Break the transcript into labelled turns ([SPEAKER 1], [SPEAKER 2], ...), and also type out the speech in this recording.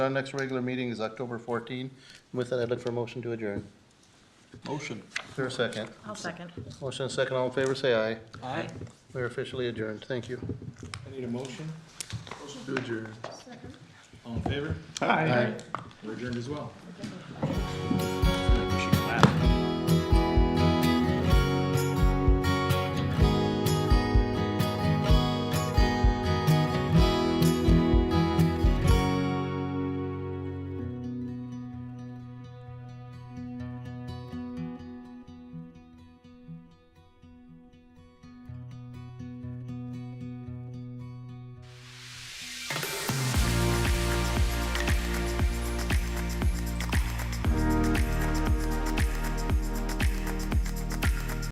[SPEAKER 1] Our next regular meeting is October 14. With that, I'd look for a motion to adjourn.
[SPEAKER 2] Motion.
[SPEAKER 1] Is there a second?
[SPEAKER 3] I'll second.
[SPEAKER 1] Motion and second, all in favor, say aye.
[SPEAKER 2] Aye.
[SPEAKER 1] We're officially adjourned. Thank you.
[SPEAKER 2] I need a motion.
[SPEAKER 1] To adjourn.
[SPEAKER 2] All in favor?
[SPEAKER 1] Aye.
[SPEAKER 2] We're adjourned as well.